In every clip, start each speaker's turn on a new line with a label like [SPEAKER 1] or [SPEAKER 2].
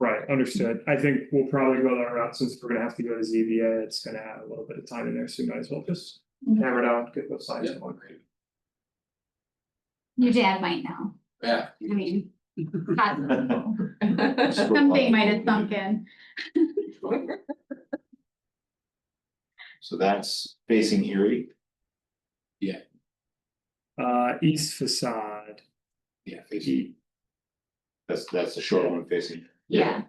[SPEAKER 1] Right.
[SPEAKER 2] Understood. I think we'll probably go that route since we're gonna have to go to ZBA. It's gonna add a little bit of time in there, so you might as well just
[SPEAKER 3] Mhm.
[SPEAKER 2] hammer it out, get those signs going.
[SPEAKER 3] Your dad might know,
[SPEAKER 4] Yeah.
[SPEAKER 3] I mean. possible.
[SPEAKER 1] That's
[SPEAKER 3] Something might have sunk in,
[SPEAKER 5] So that's facing Erie,
[SPEAKER 2] Uh, east facade,
[SPEAKER 4] Yeah, facing,
[SPEAKER 5] that's, that's the short one facing,
[SPEAKER 3] yeah.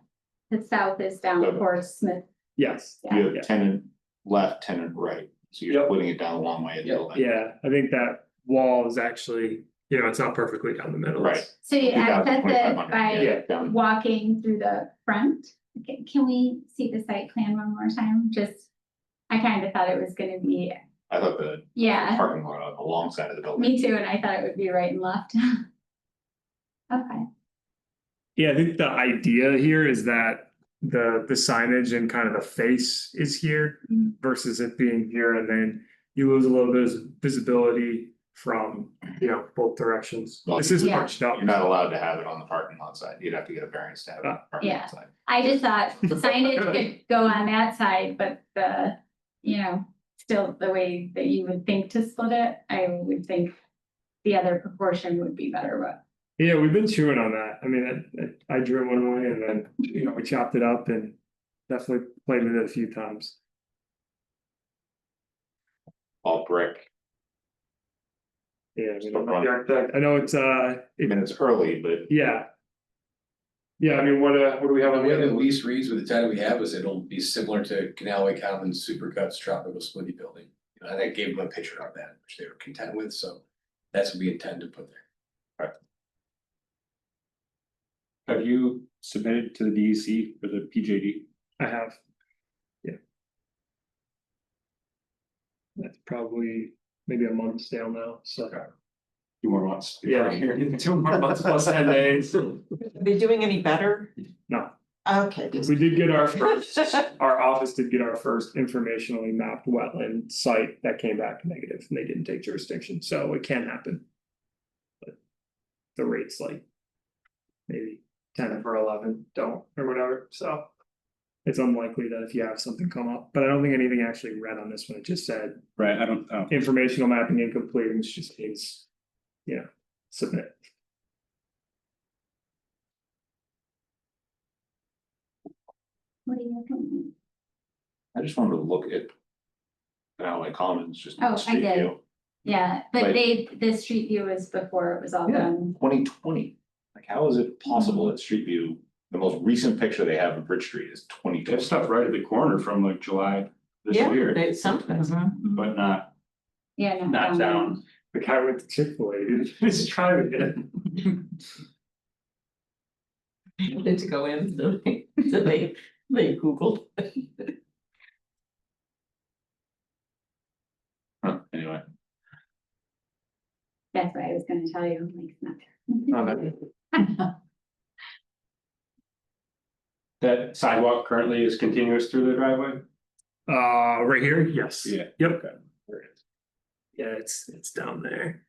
[SPEAKER 3] The south is down towards Smith,
[SPEAKER 2] yes,
[SPEAKER 5] you
[SPEAKER 2] Yeah.
[SPEAKER 5] have tenant left, tenant right, so
[SPEAKER 2] Yep.
[SPEAKER 5] you're putting it down a long way.
[SPEAKER 4] Yep.
[SPEAKER 2] yeah, I think that wall is actually, you know, it's not perfectly down the middle. It's-
[SPEAKER 3] so you access it
[SPEAKER 5] 2,500,
[SPEAKER 3] by
[SPEAKER 5] Yeah, down,
[SPEAKER 3] walking through the front. Ca- Can we see the site plan one more time, just? I kind of thought it was gonna be,
[SPEAKER 5] I thought the
[SPEAKER 3] yeah,
[SPEAKER 5] parking lot on the long side of the building.
[SPEAKER 3] me too, and I thought it would be right and left. Okay,
[SPEAKER 2] Yeah, I think the idea here is that the, the signage and kind of the face is here
[SPEAKER 3] Mhm.
[SPEAKER 2] versus it being here and then you lose a little bit of visibility from, you know, both directions.
[SPEAKER 5] Well,
[SPEAKER 2] This is
[SPEAKER 3] Yeah.
[SPEAKER 2] bunched up.
[SPEAKER 5] You're not allowed to have it on the parking lot side, you'd have to get a variance to have it on the parking
[SPEAKER 3] Yeah.
[SPEAKER 5] lot side.
[SPEAKER 3] I just thought signage could go on that side, but the, you know, still the way that you would think to split it, I would think. The other proportion would be better, but.
[SPEAKER 2] Yeah, we've been chewing on that. I mean, I, I I drew one way and then, you know, we chopped it up and definitely played with it a few times.
[SPEAKER 5] All brick,
[SPEAKER 2] Yeah, I mean,
[SPEAKER 5] Still wrong.
[SPEAKER 2] the architect- I know it's, uh,
[SPEAKER 5] I
[SPEAKER 2] it-
[SPEAKER 5] mean, it's early, but
[SPEAKER 2] yeah. Yeah, I mean, what, uh, what do we have on
[SPEAKER 4] one
[SPEAKER 2] the
[SPEAKER 4] of the
[SPEAKER 2] other? one?
[SPEAKER 4] least reads with the title we have is it'll be similar to Canalway Commons Supercuts Tropical Smoothie Building. You know, And I gave them a picture of that, which they were content with, so that's what we intend to put there.
[SPEAKER 6] Have you submitted to the
[SPEAKER 5] E
[SPEAKER 6] DEC for the PJD?
[SPEAKER 2] I have. Yeah. That's probably maybe a month's sale now, so.
[SPEAKER 6] Two more months.
[SPEAKER 2] Yeah. Two more months plus ten days.
[SPEAKER 1] Are they doing any better?
[SPEAKER 2] No.
[SPEAKER 1] Okay. just-
[SPEAKER 2] We did get our first, our office did get our first informationally mapped wetland site that came back negative and they didn't take jurisdiction, so it can happen. But The rates like. Maybe ten or eleven don't or whatever, so. It's unlikely that if you have something come up, but I don't think anything actually read on this one, it just said
[SPEAKER 6] Right, I don't, oh,
[SPEAKER 2] informational mapping incomplete, which just means. You know, submit.
[SPEAKER 3] What do you looking
[SPEAKER 5] I just wanted to look at. Canalway Commons, just.
[SPEAKER 3] Oh, I did. at? Yeah, but
[SPEAKER 5] Like-
[SPEAKER 3] they, the street view was before it was all
[SPEAKER 5] Yeah.
[SPEAKER 3] done.
[SPEAKER 5] Twenty twenty, like how is it possible that Street View, the most recent picture they have of Bridge Street is twenty
[SPEAKER 6] there's
[SPEAKER 5] twenty?
[SPEAKER 6] stuff right at the corner from like July this
[SPEAKER 1] Yeah,
[SPEAKER 6] year,
[SPEAKER 1] they- sometimes, huh?
[SPEAKER 6] but not,
[SPEAKER 3] Yeah, no.
[SPEAKER 6] not down.
[SPEAKER 2] The guy went to Chick-fil-A, he's trying to get it.
[SPEAKER 1] Did to go in, so they, so they, they Googled.
[SPEAKER 5] Huh, Anyway,
[SPEAKER 3] That's what I was gonna tell you, like, it's not there.
[SPEAKER 6] Oh, that- That sidewalk currently is continuous through the driveway?
[SPEAKER 2] Uh, right here, yes.
[SPEAKER 6] Yeah.
[SPEAKER 2] Yep. Yeah, it's, it's down there.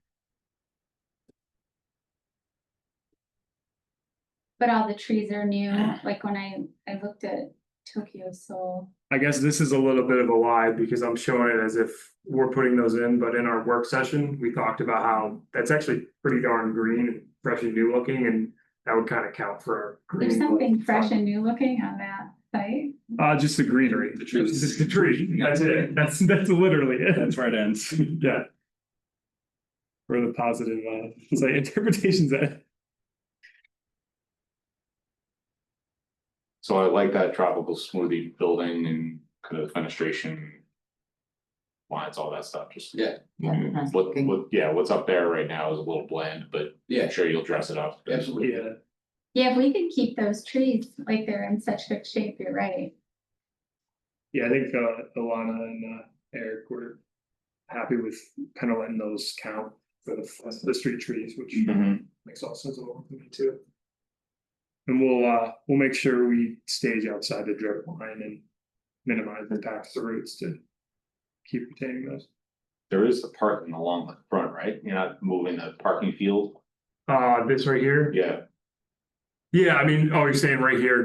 [SPEAKER 3] But all the trees are new, like when I, I looked at Tokyo Soul.
[SPEAKER 2] I guess this is a little bit of a lie because I'm showing it as if we're putting those in, but in our work session, we talked about how that's actually pretty darn green, and fresh and new looking, and that would kind of count for. our
[SPEAKER 3] There's
[SPEAKER 2] green
[SPEAKER 3] something fresh
[SPEAKER 2] fund.
[SPEAKER 3] and new looking on that site.
[SPEAKER 2] Uh, just the greenery.
[SPEAKER 6] The trees.
[SPEAKER 2] Just the tree, that's it, that's, that's literally it.
[SPEAKER 6] That's where it ends.
[SPEAKER 2] Yeah. Or the positive, uh, it's like interpretations that.
[SPEAKER 5] so I like that tropical smoothie building and kind of fenestration. Lines, all that stuff, just.
[SPEAKER 4] Yeah.
[SPEAKER 5] Mm, What, what, yeah, what's up there right now is a little bland, but I'm
[SPEAKER 4] Yeah,
[SPEAKER 5] sure you'll dress it up.
[SPEAKER 4] absolutely.
[SPEAKER 3] Yeah, if we could keep those trees like they're in such good shape, you're right.
[SPEAKER 2] Yeah, I think uh Alana and uh Eric were happy with kind of letting those count for the the street trees, which
[SPEAKER 5] Mhm.
[SPEAKER 2] makes all sense of all to me too. And we'll uh, we'll make sure we stage outside the drip line and minimize the impacts to roots to keep retaining those.
[SPEAKER 5] There is the parking along the front, right? You're not moving the parking field,
[SPEAKER 2] Uh, this right here?
[SPEAKER 5] yeah.
[SPEAKER 2] Yeah, I mean, oh, you're saying right here